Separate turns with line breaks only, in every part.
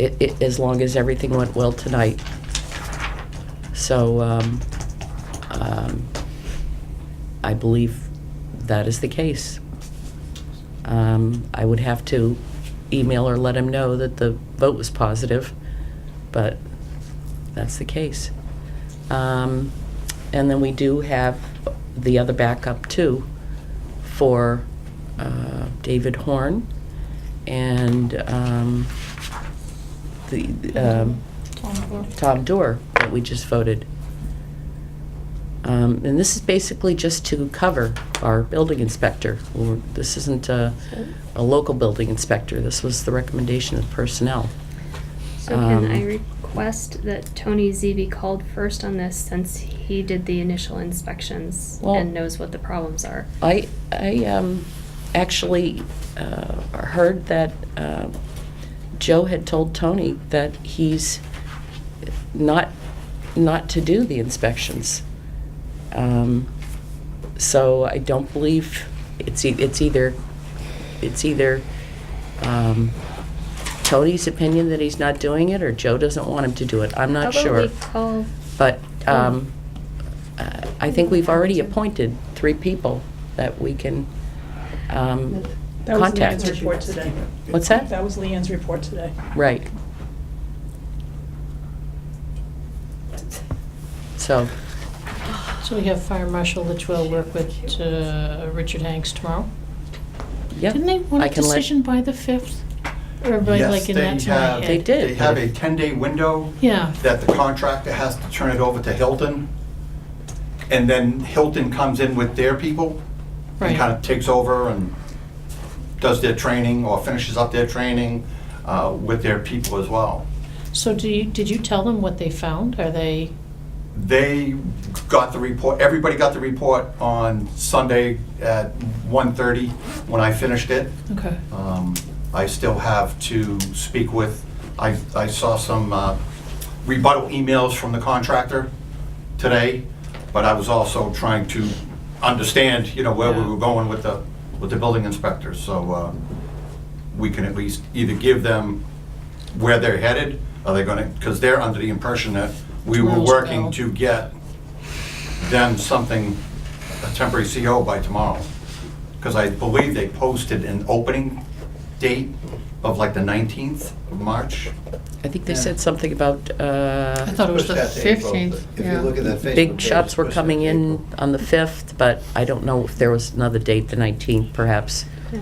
i- i- as long as everything went well tonight. So, um, um, I believe that is the case. Um, I would have to email or let him know that the vote was positive, but that's the case. Um, and then we do have the other backup too for, uh, David Horn and, um, the, um, Tom Door that we just voted. Um, And this is basically just to cover our building inspector. We're- This isn't a, a local building inspector, this was the recommendation of personnel.
So
Um,
can I request that Tony Z be called first on this since he did the initial inspections
Well-
and knows what the problems are?
I, I um, actually uh, heard that um, Joe had told Tony that he's not, not to do the inspections. Um, So I don't believe, it's, e- it's either, it's either um, Tony's opinion that he's not doing it, or Joe doesn't want him to do it. I'm not
How
sure.
about we call,
But
Tom.
um, uh, I think we've already appointed three people that we can um,
That was
contact.
Leanne's report today.
What's that?
That was Leanne's report today.
Right. So,
So we have Fire Marshal Litchfield work with uh, Richard Hanks tomorrow.
yeah.
Didn't they want
I
a
can let-
decision by the 5th? Or by
Yes,
like in that
they have-
time?
They did.
They have a 10-day window
Yeah,
that the contractor has to turn it over to Hilton, and then Hilton comes in with their people and kind
right.
of takes over and does their training or finishes up their training uh, with their people as well.
So do you, did you tell them what they found? Are they,
They got the report, everybody got the report on Sunday at 1:30 when I finished it.
okay,
Um, I still have to speak with, I, I saw some uh, rebuttal emails from the contractor today, but I was also trying to understand, you know, where we
Yeah.
were going with the, with the building inspectors, so uh, we can at least either give them where they're headed, are they gonna, because they're under the impression that we were
Tomorrow's
working
bill.
to get them something, a temporary CO by tomorrow. Because I believe they posted an opening date of like the 19th of March.
I think they said something about
I
uh,
thought it was
Push
the
that to April,
15th,
but If you look
yeah.
at that Facebook.
big
page,
shots were
push that to
coming in
April.
on the 5th, but I don't know if there was another date, the 19th perhaps.
yeah.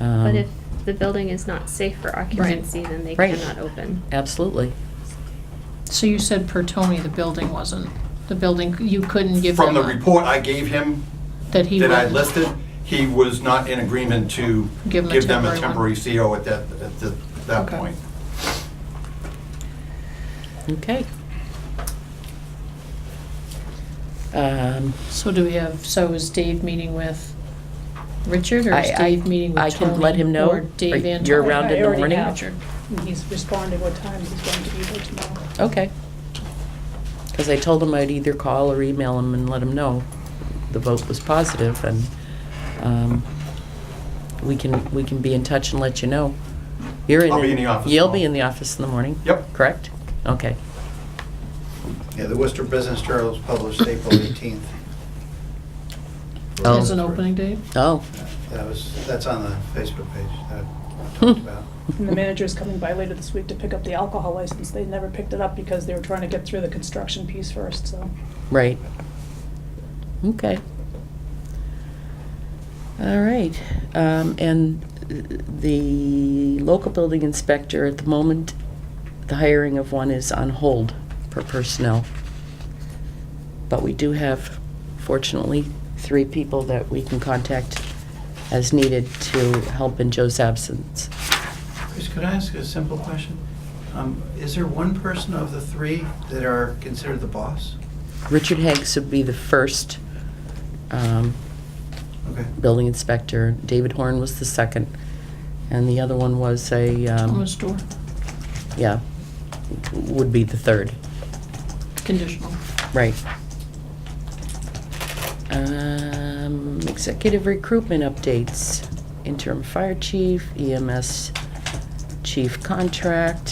Um,
but if the building is not safe for occupancy, then they
Right.
cannot open.
Absolutely.
So you said per Tony, the building wasn't, the building, you couldn't give them
From the
a-
report I gave him
That he
that I
wouldn't.
listed, he was not in agreement to
Give them a
give them a
temporary
temporary CO at that, at the- that
Okay.
point.
Okay. Um,
So do we have, so is Dave meeting with Richard or is
I- I-
Dave meeting
I
with
can
Tony?
let him know,
Or Dave
or
and
you're
Tony?
around in the
I already
morning?
have. He's responding what time he's going to be there tomorrow.
Okay. Because I told him I'd either call or email him and let him know the vote was positive, and um, we can, we can be in touch and let you know. You're in.
I'll be in the office
You'll be
tomorrow.
in the office in the morning?
Yep.
Correct? Okay.
Yeah, the Worcester Business Journal is published April 18th.
Oh.
There's an opening date?
Oh.
That was, that's on the Facebook page Uh, that I talked about.
And the manager's coming by later this week to pick up the alcohol license. They never picked it up because they were trying to get through the construction piece first, so.
Right. Okay. All right, um, and the local building inspector, at the moment, the hiring of one is on hold per personnel. But we do have, fortunately, three people that we can contact as needed to help in Joe's absence.
Chris, could I ask a simple question? Um, Is there one person of the three that are considered the boss?
Richard Hanks would be the first, um,
Okay.
building inspector. David Horn was the second, and the other one was a, um,
Thomas Door,
yeah, would be the third,
conditional.
right. Um, Executive recruitment updates, interim fire E chief, EMS chief contract,